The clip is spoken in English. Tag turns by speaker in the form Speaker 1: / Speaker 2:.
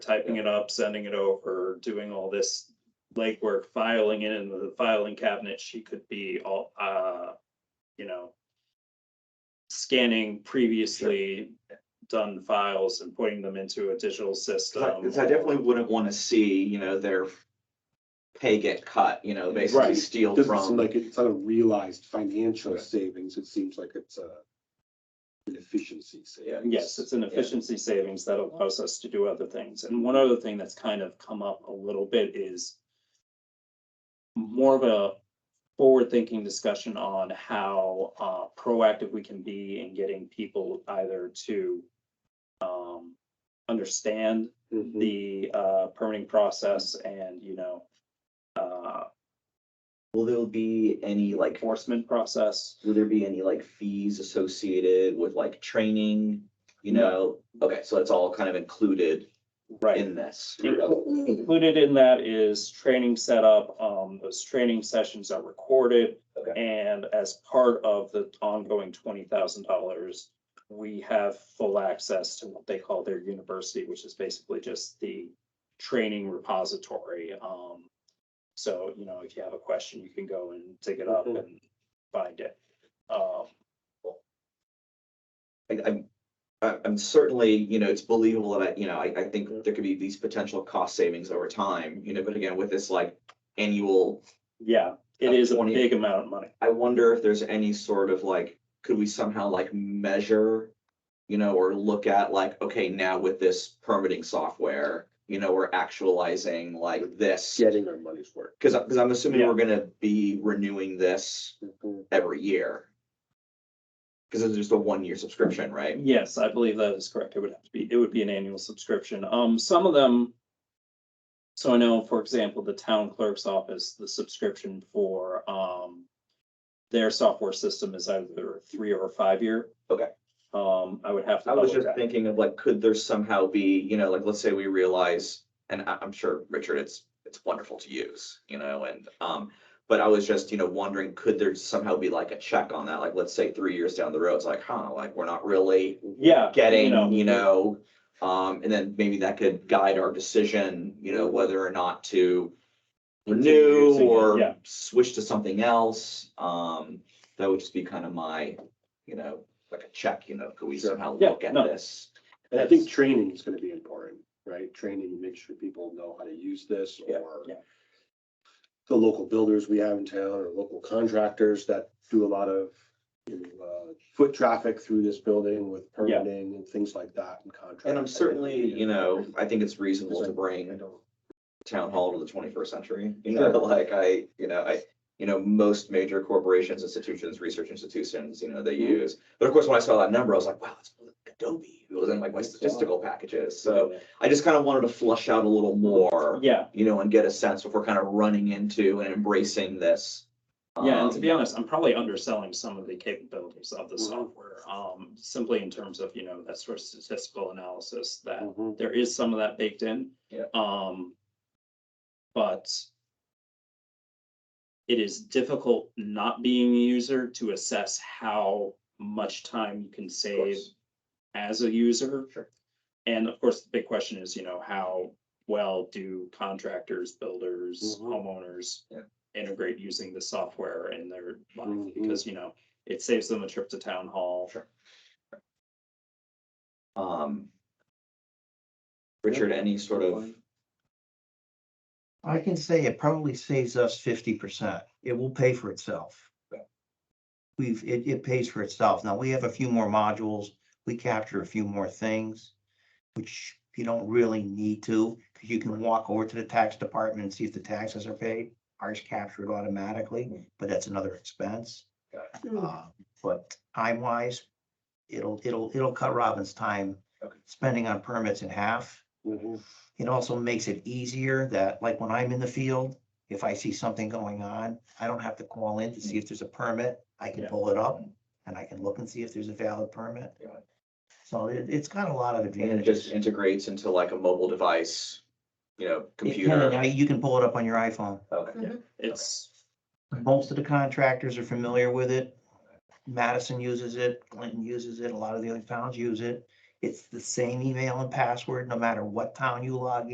Speaker 1: typing it up, sending it over, doing all this legwork, filing it in the filing cabinet, she could be all, uh, you know, scanning previously done files and putting them into a digital system.
Speaker 2: Because I definitely wouldn't want to see, you know, their pay get cut, you know, basically
Speaker 3: Right.
Speaker 2: steal
Speaker 3: Doesn't seem
Speaker 2: from.
Speaker 3: like it's not a realized financial
Speaker 2: Correct.
Speaker 3: savings. It seems like it's a an efficiency savings.
Speaker 1: Yes, it's an efficiency savings that allows us to do other things. And one other thing that's kind of come up a little bit is more of a forward-thinking discussion on how uh, proactive we can be in getting people either to um, understand
Speaker 3: Mhm.
Speaker 1: the uh, permitting process and, you know, uh,
Speaker 2: Will there be any like,
Speaker 1: enforcement process.
Speaker 2: will there be any like fees associated with like training? You know, okay, so that's all kind of included
Speaker 1: Right.
Speaker 2: in this.
Speaker 1: Included in that is training setup. Um, those training sessions are recorded.
Speaker 2: Okay.
Speaker 1: And as part of the ongoing twenty thousand dollars, we have full access to what they call their university, which is basically just the training repository. Um, so, you know, if you have a question, you can go and dig it up
Speaker 3: Mhm.
Speaker 1: and find it. Um,
Speaker 2: I, I'm, I- I'm certainly, you know, it's believable that, I you know, I, I think there could be these potential cost savings over time, you know, but again, with this like annual
Speaker 1: yeah, it
Speaker 2: Uh,
Speaker 1: is a
Speaker 2: 20
Speaker 1: big amount of money.
Speaker 2: I wonder if there's any sort of like, could we somehow like measure? You know, or look at like, okay, now with this permitting software, you know, we're actualizing like this.
Speaker 3: Getting our money's worth.
Speaker 2: Cause, I- cause I'm assuming
Speaker 1: Yeah.
Speaker 2: we're gonna be renewing this
Speaker 3: Mm-hmm.
Speaker 2: every year. Cause it's just a one-year subscription, right?
Speaker 1: Yes, I believe that is correct. It would have to be, it would be an annual subscription. Um, some of them. So I know, for example, the town clerk's office, the subscription for, um. Their software system is either a three or a five year.
Speaker 2: Okay.
Speaker 1: Um, I would have to.
Speaker 2: I was
Speaker 1: double
Speaker 2: just
Speaker 1: check.
Speaker 2: thinking of like, could there somehow be, you know, like, let's say we realize, and I, I'm sure, Richard, it's, it's wonderful to use, you know, and, um, but I was just, you know, wondering, could there somehow be like a check on that? Like, let's say three years down the road, it's like, huh, like, we're not really
Speaker 1: Yeah. you
Speaker 2: getting, you know, um, and then maybe that could guide our decision, you know, whether or not to renew
Speaker 1: using it,
Speaker 2: or
Speaker 1: yeah.
Speaker 2: switch to something else. Um, that would just be kind of my, you know, like a check, you know, could we
Speaker 3: Sure.
Speaker 2: somehow
Speaker 1: Yeah,
Speaker 2: look at
Speaker 1: no.
Speaker 2: this?
Speaker 3: And I think training is gonna be important, right? Training, make sure people know how to use this
Speaker 2: Yeah,
Speaker 3: or
Speaker 1: yeah.
Speaker 3: the local builders we have in town or local contractors that do a lot of you know, uh, foot traffic through this building with
Speaker 1: Yeah.
Speaker 3: permitting and things like that and contracts.
Speaker 2: And I'm certainly, you know, I think it's reasonable
Speaker 3: Because
Speaker 2: to
Speaker 3: I
Speaker 2: bring
Speaker 3: don't,
Speaker 2: town hall to the twenty-first century. You know, like I, you know, I, you know, most major corporations, institutions, research institutions, you know, they
Speaker 3: Mhm.
Speaker 1: Mm-hmm.
Speaker 2: use. But of course, when I saw that number, I was like, wow, that's Adobe. It was in like my statistical packages. So I just kind of wanted to flush out a little more,
Speaker 1: Yeah,
Speaker 2: you know, and get a sense if we're kind of running into and embracing this.
Speaker 1: yeah, and to
Speaker 2: um, Mm-hmm.
Speaker 1: be honest, I'm probably underselling some of the capabilities of the
Speaker 3: Mhm.
Speaker 1: software, um, simply in terms of, you know, that sort of statistical analysis that.
Speaker 3: Mhm.
Speaker 1: there is some of that baked in.
Speaker 2: Yeah.
Speaker 1: Um, but it is difficult not being a user to assess how much time you can
Speaker 2: of
Speaker 1: save
Speaker 2: course.
Speaker 1: as a user.
Speaker 2: Sure.
Speaker 1: And of course, the big question is, you know, how well do contractors, builders,
Speaker 3: Mhm.
Speaker 1: homeowners
Speaker 2: Mm-hmm. Yeah. Mm-hmm.
Speaker 1: integrate using the software in their life?
Speaker 3: Mhm.
Speaker 1: Because, you know, it saves them a trip to town hall.
Speaker 2: Sure. Um. Richard, any sort of,
Speaker 4: I can say it probably saves us fifty percent. It will pay for itself.
Speaker 2: Yeah.
Speaker 4: We've, it, it pays for itself. Now, we have a few more modules. We capture a few more things, which you don't really need to, because you can walk over to the tax department and see if the taxes are paid. Ours captured automatically, but that's another expense. Uh, But time wise, it'll, it'll, it'll cut Robin's time
Speaker 2: Okay.
Speaker 4: spending on permits in half.
Speaker 3: Mhm.
Speaker 4: It also makes it easier that, like, when I'm in the field, if I see something going on, I don't have to call in to see if there's a permit. I can
Speaker 1: Yeah.
Speaker 4: pull it up and I can look and see if there's a valid permit.
Speaker 2: Yeah.
Speaker 4: So it, it's got a lot of
Speaker 2: and it just
Speaker 4: advantages.
Speaker 2: integrates into like a mobile device, you know,
Speaker 4: It
Speaker 2: computer.
Speaker 4: can, I- You can pull it up on your iPhone.
Speaker 2: Okay.
Speaker 1: It's
Speaker 4: Most of the contractors are familiar with it. Madison uses it, Clinton uses it, a lot of the other towns use it. It's the same email and password, no matter what town you log in.